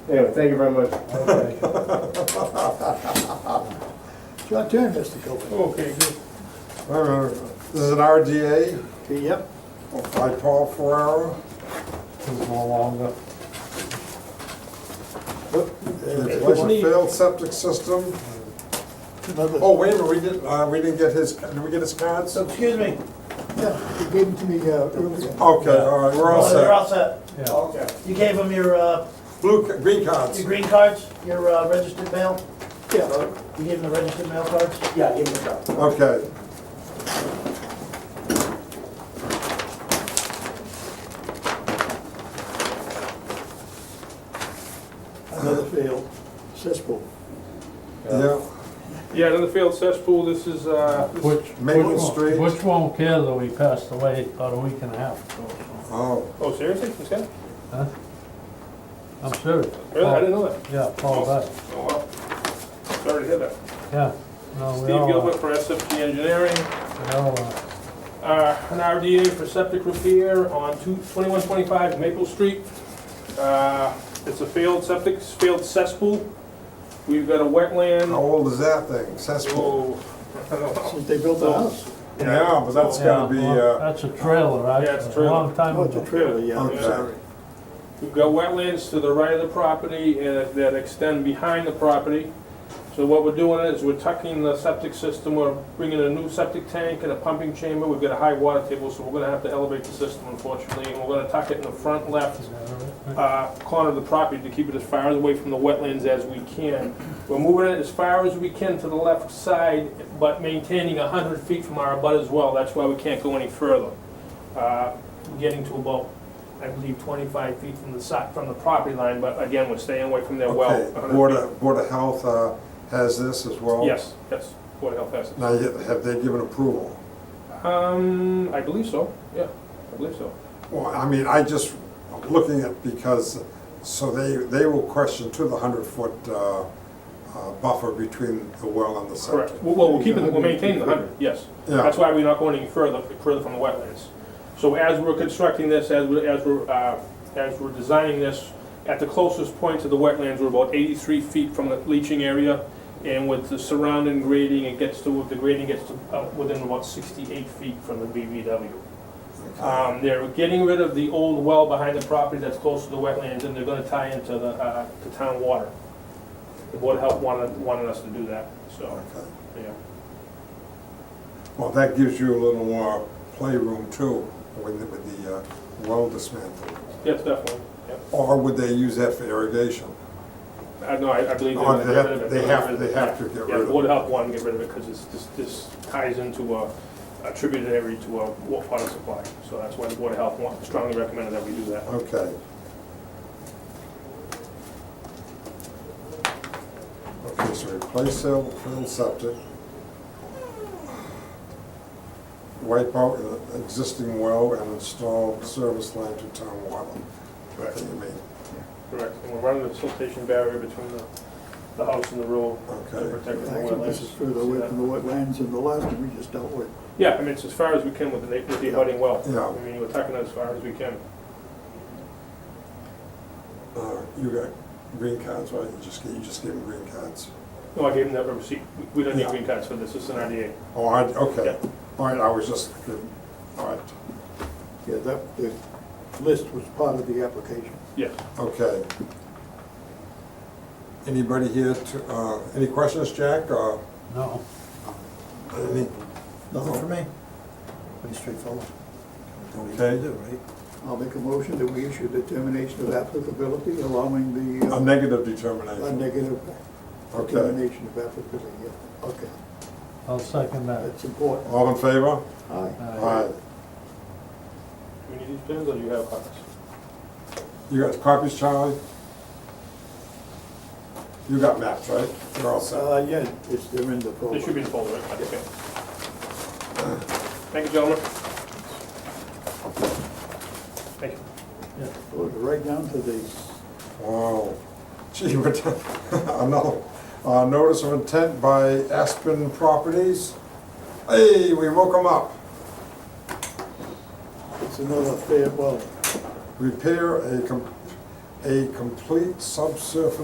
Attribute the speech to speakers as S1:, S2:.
S1: Anyway, thank you very much.
S2: Your turn, Mr. Cohen.
S1: Okay, good.
S3: Uh, This is an RDA
S2: Yep.
S3: by Paul Ferraro. This is no longer. Replace a failed septic system.
S2: Another,
S3: Oh, wait a minute, we didn't, uh, we didn't get his, did we get his cards? Okay,
S4: Excuse me,
S2: yeah, you gave it to me uh, earlier.
S3: all right, we're all
S4: Oh, they're
S3: set.
S4: all set.
S3: Okay.
S4: You gave them your, uh,
S3: Blue, ca- green
S4: your
S3: cards.
S4: green cards, your uh, registered mail?
S2: Yeah,
S4: You gave them the registered mail cards?
S5: Yeah, give me a call.
S3: Okay.
S2: another failed cesspool.
S3: Yeah.
S1: Yeah, another failed cesspool, this is, uh, this-
S6: Which,
S3: Maple
S6: which one-
S3: Street.
S6: Which won't care though, he passed away about a week and a half ago.
S3: Oh,
S1: oh, seriously, this guy?
S6: Huh? I'm serious.
S1: Really? I didn't know that.
S6: Yeah, Paul died,
S1: Oh, wow. Sorry to hear that.
S6: yeah. No, we
S1: Steve
S6: all, uh,
S1: Gilbert for SFG Engineering,
S6: we all, uh,
S1: uh, an RDA for septic repair on two- 2125 Maple Street. Uh, It's a failed septic, failed cesspool. We've got a
S3: how
S1: wetland.
S3: old is that thing? Cesspool?
S1: Oh, I don't know.
S2: Since they built the house.
S3: Yeah, but that's
S6: yeah,
S3: gotta be,
S6: well,
S3: uh,
S6: That's a trailer, right?
S1: Yeah, it's a
S6: A
S1: trailer.
S6: Long time
S2: Oh, it's a
S6: ago.
S2: trailer, yeah.
S3: Okay.
S2: Sorry.
S1: We've got wetlands to the right of the property and that extend behind the property. So what we're doing is we're tucking the septic system, we're bringing a new septic tank and a pumping chamber. We've got a high water table, so we're gonna have to elevate the system unfortunately. And we're gonna tuck it in the front left
S6: Is that all right?
S1: uh, corner of the property to keep it as far away from the wetlands as we can. We're moving it as far as we can to the left side, but maintaining 100 feet from our abut as well. That's why we can't go any further. Uh, We're getting to about, I believe, 25 feet from the side, from the property line, but again, we're staying away from their well.
S3: okay,
S1: 100
S3: Board
S1: feet.
S3: of, Board of Health, uh, has this as well?
S1: Yes, yes, Board of Health has
S3: Now, you- have they given approval?
S1: it. Um, I believe so, yeah, I believe so.
S3: Well, I mean, I just, I'm looking at, because, so they, they will question to the hundred foot, uh, uh, buffer between the well and the
S1: Correct.
S3: septic.
S1: Well, well, we'll keep it, we'll maintain the 100, yes.
S3: Yeah,
S1: That's why we're not going any further, further from the wetlands. So as we're constructing this, as we're, as we're, uh, as we're designing this, at the closest point to the wetlands, we're about eighty-three feet from the leaching area. And with the surrounding grading, it gets to, the grading gets to, uh, within about sixty-eight feet from the BVW. Um, they're getting rid of the old well behind the property that's close to the wetlands, and they're gonna tie into the, uh, the town water. The Board of Health wanted, wanted us to do that, so,
S3: okay.
S1: yeah.
S3: Well, that gives you a little, uh, playroom too, with the, with the, uh, well dismantled.
S1: Yes, definitely, yeah.
S3: Or would they use that for irrigation?
S1: I no, I, I believe they're
S3: Or
S1: gonna
S3: Oh, they
S1: get rid of
S3: have,
S1: it.
S3: they have, they have to get
S1: Yeah,
S3: rid
S1: the
S3: of
S1: Board
S3: it.
S1: of Health wanted to get rid of it, because it's, this, this ties into a, a tributary to a wa- water supply, so that's why the Board of Health want- strongly recommended that we do that.
S3: Okay. Okay, so replace cell, fill septic. Wipe out the existing well and install service line to town water. What do you mean?
S1: Correct, and we're running a siltation barrier between the, the house and the road to
S3: Okay,
S1: protect the
S2: Actually, this is
S1: wetlands.
S2: further away from the wetlands and the last one we just dealt with.
S1: Yeah, I mean, it's as far as we can with the, na- with the abutting well.
S3: Yeah.
S1: I mean, we're tucking it as far as we can.
S3: uh, you got green cards, right? You just, gave- you just gave them green cards.
S1: No, I gave them that receipt, We- we don't need
S3: Yeah.
S1: green cards for this, it's an RDA.
S3: Oh, I, okay.
S1: Yeah.
S3: All right, I was just, all right,
S2: Yeah, that, the list was part of the application.
S1: Yeah.
S3: okay. Anybody here to, uh, any questions, Jack, or
S6: No,
S3: any?
S5: Nothing for me. Pretty straightforward.
S3: Okay.
S5: Do, right?
S2: I'll make a motion that we issue determination of applicability, allowing the,
S3: A
S2: uh,
S3: negative
S2: a
S3: determination.
S2: negative
S3: Okay.
S2: determination of applicability, yeah. Okay,
S6: I'll second that.
S2: that's important.
S3: All in favor?
S2: Aye.
S6: Uh,
S1: Do we need these pins, or do you have copies?
S3: You got copies, Charlie? You got maps, right? You're all set.
S2: Uh, yeah, it's, they're in the folder.
S1: This should be in the folder, right? Okay. Thank you, gentlemen. Thank you.
S6: yeah.
S2: Goes Right down to the,
S3: Wow. Gee, we're, t- another, uh, notice of intent by Aspen Properties. Hey, we woke them up.
S2: it's another fair, well,
S3: Repair a, com- a complete subsurface